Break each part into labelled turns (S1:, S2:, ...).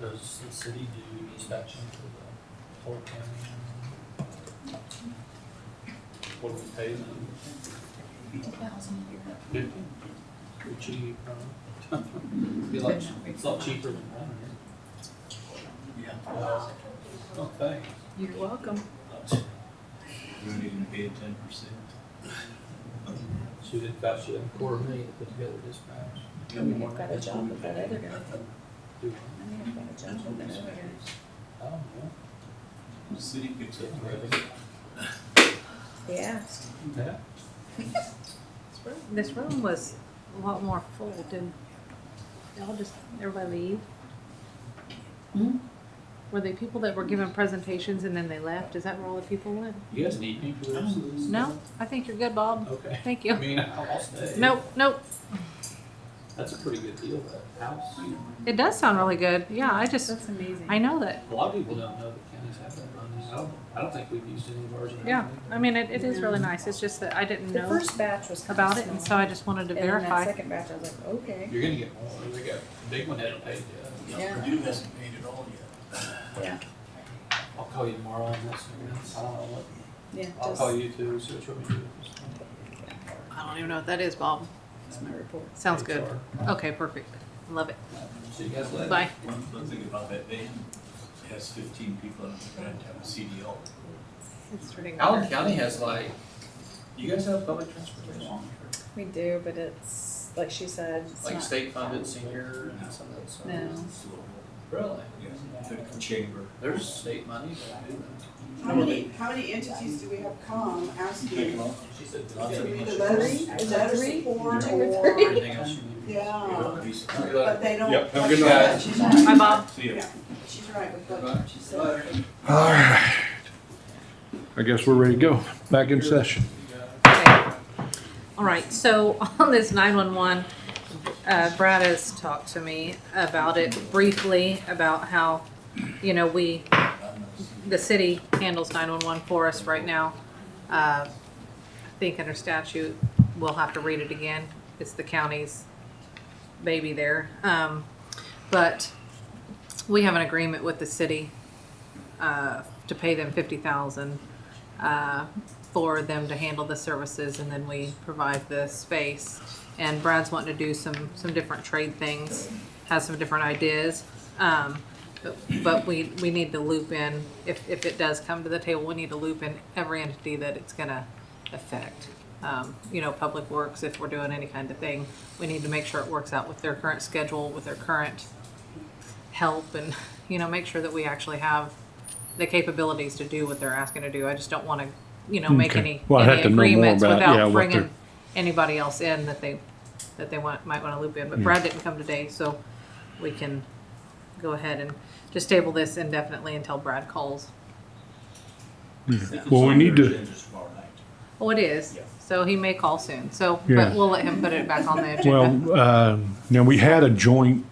S1: Does the city do inspection for the whole county? What do we pay them?
S2: Fifty thousand a year.
S1: Fifty? Pretty cheap, huh? Be like, it's a lot cheaper than one here. Yeah. Oh, thanks.
S2: You're welcome.
S3: We don't even pay ten percent.
S1: Shoot, it's about you a quarter million to put together this patch.
S2: I mean, I've got a job with that other guy.
S1: Do
S2: I mean, I've got a
S3: That's
S2: job
S3: what
S2: with
S3: we
S2: that other
S3: say.
S2: guy.
S1: I don't know.
S3: The city picks up the
S1: Really?
S3: revenue.
S2: Yeah.
S1: Yeah.
S4: This room was a lot more full, didn't, y'all just, everybody leave?
S2: Hmm?
S4: Were they people that were given presentations and then they left? Is that where all the people went?
S1: You guys need me for this?
S4: No, I think you're good, Bob.
S1: Okay.
S4: Thank
S1: I
S4: you.
S1: mean, I'll stay.
S4: Nope, nope.
S1: That's a pretty good deal, that house.
S4: It does sound really good. Yeah, I just,
S2: That's amazing.
S4: I know that.
S1: A lot of people don't know that counties have that money. I don't, I don't think we've used any of ours. in our
S4: Yeah, I
S1: county.
S4: mean, it, it is really nice. It's just that I didn't
S2: The
S4: know
S2: first batch was kind
S4: about it and so I just wanted to
S2: And then that
S4: verify.
S2: second batch, I was like, okay,
S1: You're gonna get more. They got, a big one uh, hadn't paid yet.
S2: Yeah.
S5: Purdue hasn't paid it all yet.
S2: yeah,
S1: I'll call you tomorrow on this. and I don't know what,
S2: yeah,
S1: I'll
S2: just,
S1: call you too, see what you want me to do.
S4: I don't even know what that is, Bob.
S2: that's my report.
S4: Sounds good.
S1: HR.
S4: Okay, perfect. Love it.
S1: See you guys later.
S4: Bye.
S3: One fun thing about that van, it has fifteen people in it, you have to have a CDL.
S1: Allen County has like,
S3: You guys have public transportation?
S2: We do, but it's, like she said, it's
S1: like
S2: not,
S1: state funded senior and some of that stuff.
S2: no.
S1: Really?
S3: Yeah, the chamber.
S1: There's state money that do
S6: How many, how many entities do we have come asking?
S1: that. She said.
S6: To read the
S2: Three?
S6: letters,
S2: Is
S6: the
S2: that
S6: letters
S2: three?
S6: of support
S2: Two or
S6: or-
S2: three?
S1: Everything else you need.
S6: Yeah,
S3: These-
S6: but they don't.
S5: Yep, have a good
S6: like
S1: night.
S6: that. She's right,
S4: Bye, Bob.
S3: See ya.
S6: she's right with what she said.
S5: All right. I guess we're ready to go. Back in session.
S4: Okay. All right, so on this nine-one-one, uh, Brad has talked to me about it briefly, about how, you know, we, the city handles nine-one-one for us right now. Uh, I think under statute, we'll have to read it again. It's the county's baby there. Um, but we have an agreement with the city, uh, to pay them fifty thousand uh, for them to handle the services and then we provide the space. And Brad's wanting to do some, some different trade things, has some different ideas. Um, but- but we, we need to loop in, if, if it does come to the table, we need to loop in every entity that it's gonna affect. Um, you know, Public Works, if we're doing any kind of thing, we need to make sure it works out with their current schedule, with their current help and, you know, make sure that we actually have the capabilities to do what they're asking to do. I just don't want to, you know, make
S5: Okay.
S4: any,
S5: Well, I'd have
S4: any
S5: to know more
S4: agreements
S5: about, yeah,
S4: without
S5: what
S4: bringing
S5: they're-
S4: anybody else in that they, that they want, might want to loop in. But
S5: Yeah.
S4: Brad didn't come today, so we can go ahead and just table this indefinitely until Brad calls.
S5: Well, we need to-
S3: Tomorrow night.
S4: Oh, it is.
S3: Yeah.
S4: So he may call soon. So,
S5: Yeah.
S4: but we'll let him put it back on the agenda.
S5: Well, uh, now, we had a joint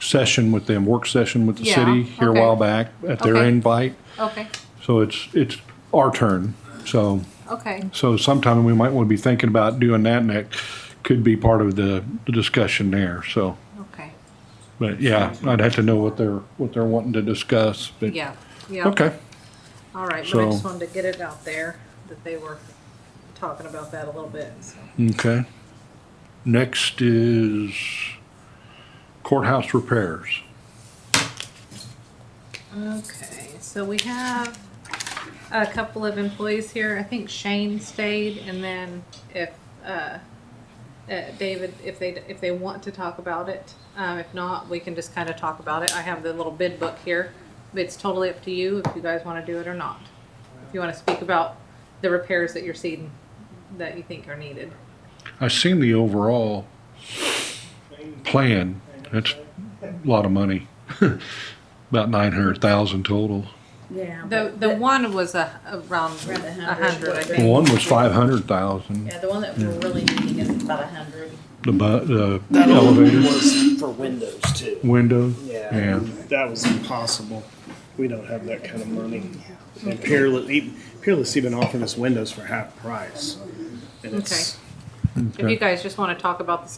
S5: session with them, work session with the
S4: Yeah,
S5: city here a
S4: okay.
S5: while back at their
S4: Okay.
S5: invite.
S4: Okay,
S5: So it's, it's our turn. So,
S4: okay.
S5: so sometime we might want to be thinking about doing that and that could be part of the the discussion there. So,
S4: Okay,
S5: but yeah, I'd have to know what they're, what they're wanting to discuss. but-
S4: yeah, yeah.
S5: Okay.
S4: All right, but I just
S5: So-
S4: wanted to get it out there that they were talking about that a little bit, so.
S5: Okay. Next is courthouse repairs.
S4: Okay, so we have a couple of employees here. I think Shane stayed, and then if, uh, uh, David, if they, if they want to talk about it, um, if not, we can just kind of talk about it. I have the little bid book here. It's totally up to you if you guys want to do it or not. If you want to speak about the repairs that you're seeing, that you think are needed.
S5: I seen the overall plan. That's a lot of money. About nine hundred thousand total.
S2: Yeah.
S4: The,
S2: but
S4: the one was a, around
S2: Around
S4: a
S2: a hundred.
S4: hundred, I think.
S5: One was five hundred thousand.
S2: Yeah, the one that we're really needing is about a hundred.
S5: The bu- the
S7: That old one
S5: elevator
S7: was for windows too.
S5: window.
S7: Yeah.
S5: Yeah.
S7: That was impossible. We don't have that kind of money. And Peerless, even, Peerless even offered us windows for half price. And it's,
S4: If you guys just want to talk about the